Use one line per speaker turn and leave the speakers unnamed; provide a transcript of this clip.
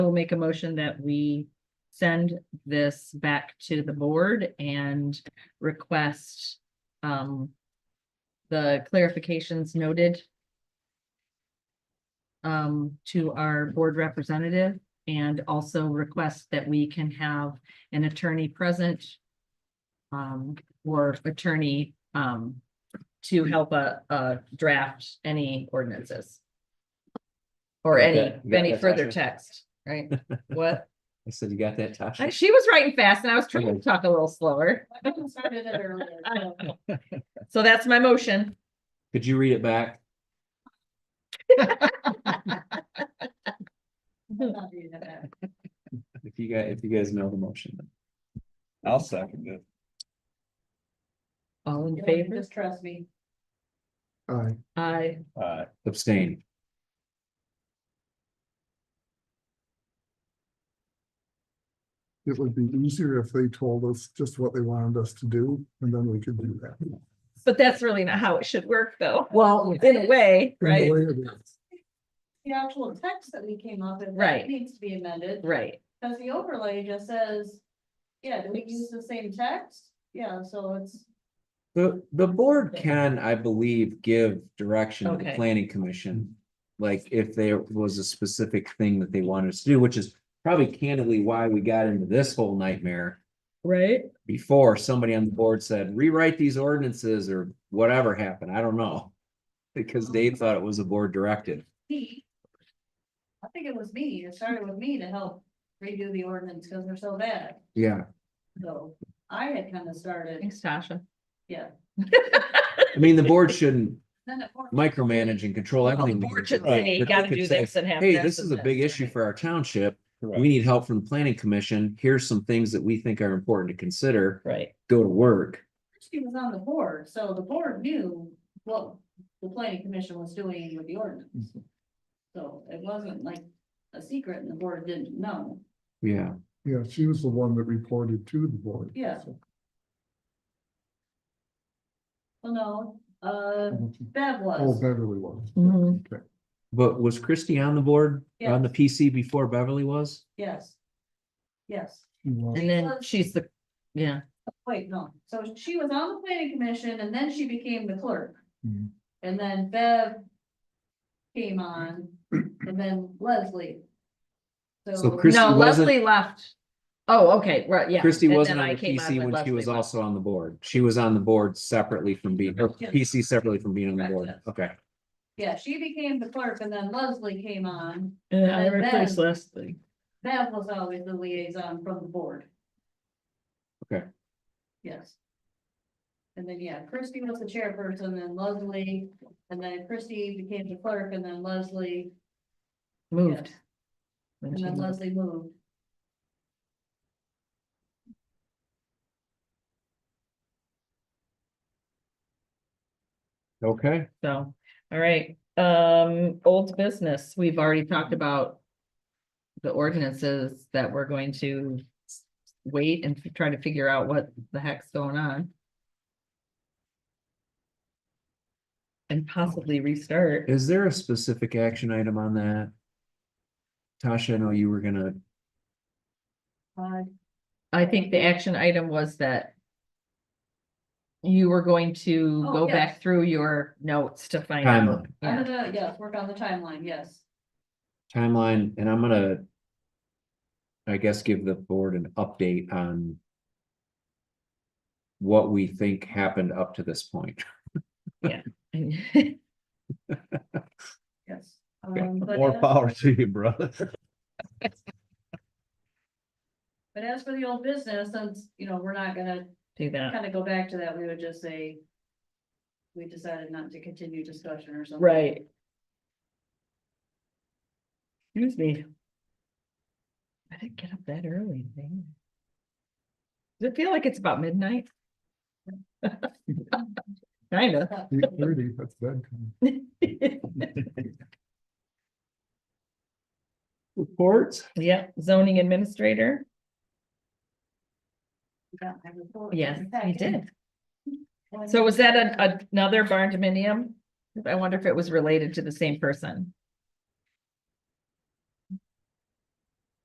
will make a motion that we send this back to the board and request um the clarifications noted um to our board representative and also request that we can have an attorney present um or attorney um to help uh uh draft any ordinances. Or any,
Okay, you got
any
that,
further
Tasha?
text, right? What?
I said, you got that,
I-
Tasha?
She was writing fast and I was trying to talk a little slower. So that's my motion.
Could you read it back? If you guys, if you guys know the motion.
I'll second it.
All in favor?
Just trust me.
Aye.
Aye.
Uh,
Abstain.
It would be easier if they told us just what they wanted us to do, and then we could do that.
But that's really not how it should work though,
Well.
in a way,
In
right?
the way it is.
The actual text that we came up with. that
Right.
Needs to be amended,
Right.
because the overlay just says, yeah, do we use the same text? Yeah, so it's,
The, the board can, I believe, give direction to the
Okay.
planning commission. Like if there was a specific thing that they wanted us to do, which is probably candidly why we got into this whole nightmare.
Right?
Before somebody on the board said rewrite these ordinances or whatever happened, I don't know. Because Dave thought it was a board directive.
me. I think it was me, it started with me to help redo the ordinance, because they're so bad,
Yeah.
so I had kind of started,
Thanks, Tasha.
yeah.
I mean, the board shouldn't
Then it worked.
micromanage and control everything.
Board should
Right.
say,
But they
gotta
could
do
say,
this and have.
Hey, this is a big issue for our township. We need help from the planning commission. Here's some things that we think are important to consider.
Right.
Go to work.
She was on the board, so the board knew what the planning commission was doing with the ordinance. So it wasn't like a secret and the board didn't know.
Yeah.
Yeah, she was the one that reported to the board.
Yeah.
So,
Well, no, uh, Bev
Oh,
was,
Beverly was.
Mhm.
Okay.
But was Christie on the board, on the
Yes.
PC before Beverly was?
yes. Yes,
She was.
And then she's the, yeah.
wait, no, so she was on the planning commission and then she became the clerk.
Mhm.
And then Bev came on, and then Leslie.
So
So,
Christie
No,
wasn't-
Leslie left. Oh, okay, right, yeah.
Christie
And
wasn't
then
on
I
the
came on
PC
when
when she was
Leslie left.
also on the board. She was on the board separately from being, or
Yeah.
PC separately from being on the board.
Correct.
Okay.
yeah, she became the clerk and then Leslie came on.
And
I replaced
Leslie.
Bev was always the liaison from the board.
Okay.
Yes. And then, yeah, Christie was the chairperson, then Leslie, and then Christie became the clerk, and then Leslie,
Moved.
Yes.
when
and
she
then
moved.
Leslie moved.
Okay.
So, all right, um, old business, we've already talked about. The ordinances that we're going to wait and try to figure out what the heck's going on. And possibly restart.
Is there a specific action item on that? Tasha, I know you were gonna,
Uh,
I think the action item was that. You were going to
Oh,
go
yes.
back through your notes to find out.
Timeline.
I'm
Yeah.
gonna, yes, work on the timeline, yes.
timeline, and I'm gonna. I guess give the board an update on. What we think happened up to this point,
Yes.
Okay.
Um, but
more
as-
power to you, brother.
But as for the old business, since, you know, we're not gonna
Do that,
kind of go back to that, we would just say. We decided not to continue discussion or something.
right. Excuse me. I didn't get up that early, man. Does it feel like it's about midnight? Kinda.
Eight thirty, that's bedtime.
reports,
Yeah, zoning administrator,
Yeah, I report.
yes, I
Okay.
did. So was that an- another barn dominium? I wonder if it was related to the same person.